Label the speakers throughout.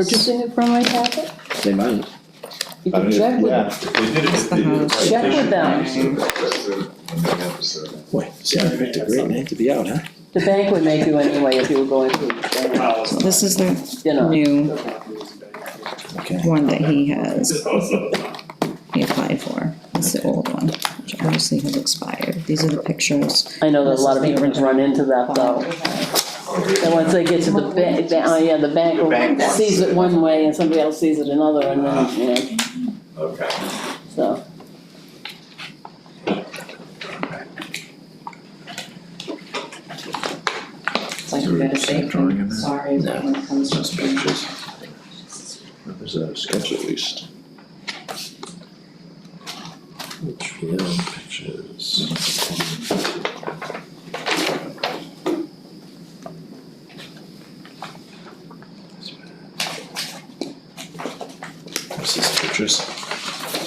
Speaker 1: purchasing it from my packet?
Speaker 2: They might.
Speaker 1: You
Speaker 3: I
Speaker 1: can
Speaker 3: mean,
Speaker 1: check with
Speaker 3: yeah,
Speaker 1: them.
Speaker 3: if they did it, if they did it right, they
Speaker 1: Check with
Speaker 3: should be
Speaker 1: them.
Speaker 3: using that, that's it, when they have to serve it.
Speaker 2: Boy, Saturday's a great night to be out, huh?
Speaker 1: The bank would make you anyway if you were going through, the
Speaker 4: This is the
Speaker 1: bank, you know.
Speaker 4: new
Speaker 2: Okay.
Speaker 4: one that he has, he applied for, it's the old one, which obviously has expired, these are the pictures.
Speaker 1: I know that a lot of people run into that though. And once they get to the bank, oh yeah, the bank
Speaker 3: The
Speaker 1: will
Speaker 3: bank wants
Speaker 1: sees
Speaker 3: it.
Speaker 1: it one way and somebody else sees it another and then, you know,
Speaker 3: Okay.
Speaker 1: so.
Speaker 5: It's like you gotta say, sorry when it comes to.
Speaker 2: There's a sketch at least. This is pictures.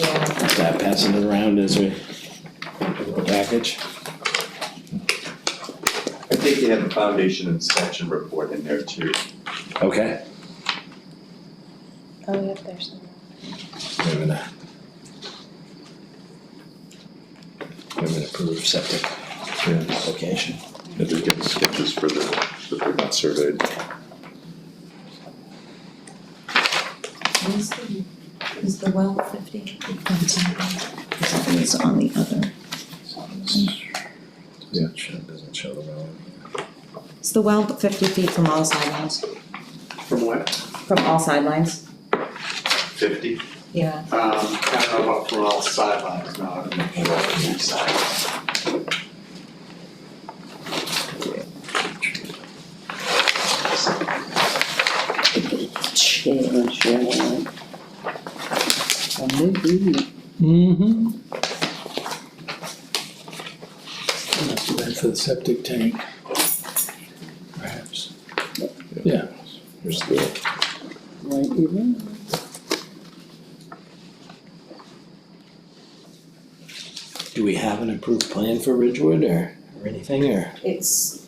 Speaker 5: Yeah,
Speaker 2: That passing it around as we package.
Speaker 3: I think they have the foundation inspection report in there too.
Speaker 2: Okay.
Speaker 5: oh, yeah, there's some.
Speaker 2: Wait a minute. Wait a minute, approved septic application.
Speaker 6: If they get sketches for the, that they're not surveyed.
Speaker 7: Is the, is the well fifty?
Speaker 4: It's on the other,
Speaker 6: Yeah, it doesn't show the well.
Speaker 7: Is the well fifty feet from all sidelines,
Speaker 8: From what?
Speaker 7: from all sidelines?
Speaker 3: Fifty?
Speaker 7: Yeah.
Speaker 8: Um, I don't know about from all sidelines, no, I don't know about from each side.
Speaker 1: Sure, sure, yeah. And maybe,
Speaker 9: Mm-hmm. Must have been for the septic tank. Perhaps. Yeah.
Speaker 6: Here's the,
Speaker 1: right, even,
Speaker 2: Do we have an approved plan for Ridgewood or, or anything, or
Speaker 7: It's,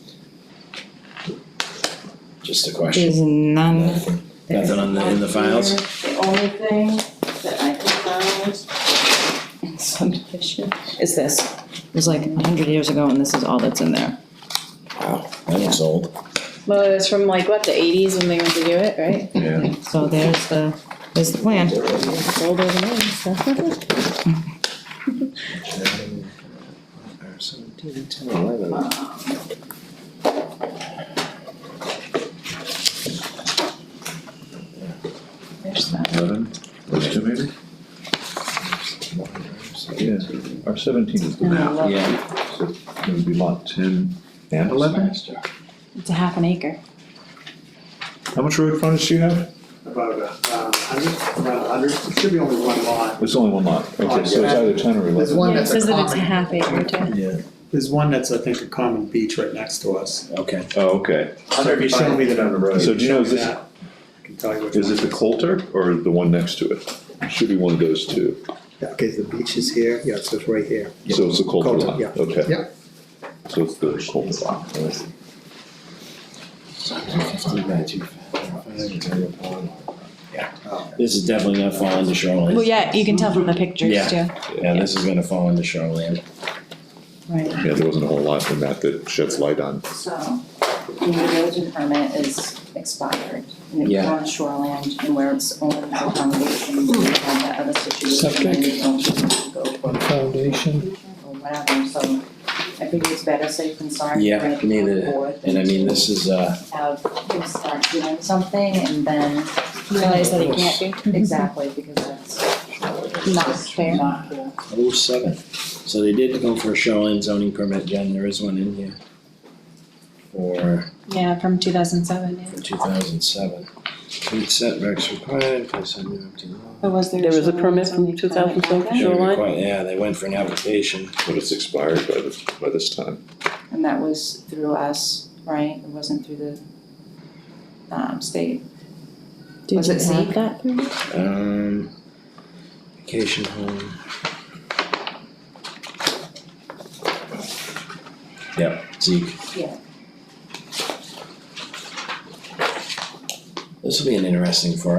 Speaker 2: just a question?
Speaker 4: there's none there.
Speaker 2: Nothing on the, in the files?
Speaker 5: The only thing that I could find in subdivision
Speaker 7: is this,
Speaker 4: It was like a hundred years ago and this is all that's in there.
Speaker 2: Wow, that looks old.
Speaker 5: Well, it was from like, what, the eighties when they went to do it, right?
Speaker 6: yeah,
Speaker 4: So there's the, there's the plan.
Speaker 5: It's older than me, so.
Speaker 2: Seventeen, ten, eleven.
Speaker 5: There's that.
Speaker 6: eleven, those two maybe? Yeah, our seventeen is the map,
Speaker 2: Yeah,
Speaker 6: so it would be lot ten and eleven?
Speaker 5: It's a half an acre.
Speaker 6: How much road frontage do you have?
Speaker 8: About a hundred, around a hundred, it should be only one lot.
Speaker 6: There's only one lot,
Speaker 10: Oh,
Speaker 6: okay, so it's either ten or
Speaker 8: There's
Speaker 6: eleven.
Speaker 8: one
Speaker 5: Yeah, it
Speaker 8: that's a
Speaker 5: says that it's a
Speaker 8: common,
Speaker 5: half acre too.
Speaker 2: yeah,
Speaker 8: there's one that's, I think, a common beach right next to us.
Speaker 2: okay.
Speaker 6: Oh, okay,
Speaker 8: So if you show me the,
Speaker 3: on the road.
Speaker 6: so do you know, is
Speaker 8: that,
Speaker 6: this,
Speaker 8: I can tell you which one.
Speaker 6: is it the Coulter or the one next to it? Should be one of those two,
Speaker 10: Okay, the beach is here, yeah, so it's right here.
Speaker 6: so it's the Coulter
Speaker 10: Coulter,
Speaker 6: lot,
Speaker 10: yeah.
Speaker 6: okay.
Speaker 10: Yeah.
Speaker 6: So it's the Coulter lot, alright.
Speaker 2: Fifteen by two, five, zero, one. Yeah, this is definitely gonna fall into shoreline.
Speaker 5: Well, yeah, you can tell from the pictures too.
Speaker 2: Yeah. Yeah, this is gonna fall into shoreline.
Speaker 5: Right,
Speaker 6: Yeah, there wasn't a whole lot in that that sheds light on.
Speaker 5: so, the erosion permit is expired, and it's
Speaker 2: Yeah.
Speaker 5: on shoreland, and where it's only a foundation, we have that other situation, and
Speaker 9: Septic.
Speaker 5: we don't just go for
Speaker 9: On foundation.
Speaker 5: or whatever, so I think it's better safe than sorry.
Speaker 2: Yeah,
Speaker 5: Bring it to
Speaker 2: neither-
Speaker 5: the board
Speaker 2: And I
Speaker 5: than
Speaker 2: mean,
Speaker 5: to
Speaker 2: this is, uh,
Speaker 5: Have him start doing something and then realize that he can't do, exactly, because that's
Speaker 7: not fair.
Speaker 5: not cool.
Speaker 2: oh seven. So they did go for a shoreline zoning permit, Jen, there is one in here. For
Speaker 7: Yeah, from two thousand seven, yeah.
Speaker 2: from two thousand seven. Complete setbacks required, place on new empty lot.
Speaker 7: was
Speaker 1: There was a permit from 2007?
Speaker 2: They
Speaker 1: Shoreline?
Speaker 2: require- Yeah, they went for an application.
Speaker 6: But it's expired by this, by this time.
Speaker 7: And that was through us, right, it wasn't through the, um, state. Was it Zeke?
Speaker 5: that permit?
Speaker 2: Um, vacation home. Yep, Zeke.
Speaker 5: Yeah.
Speaker 2: This will be an interesting for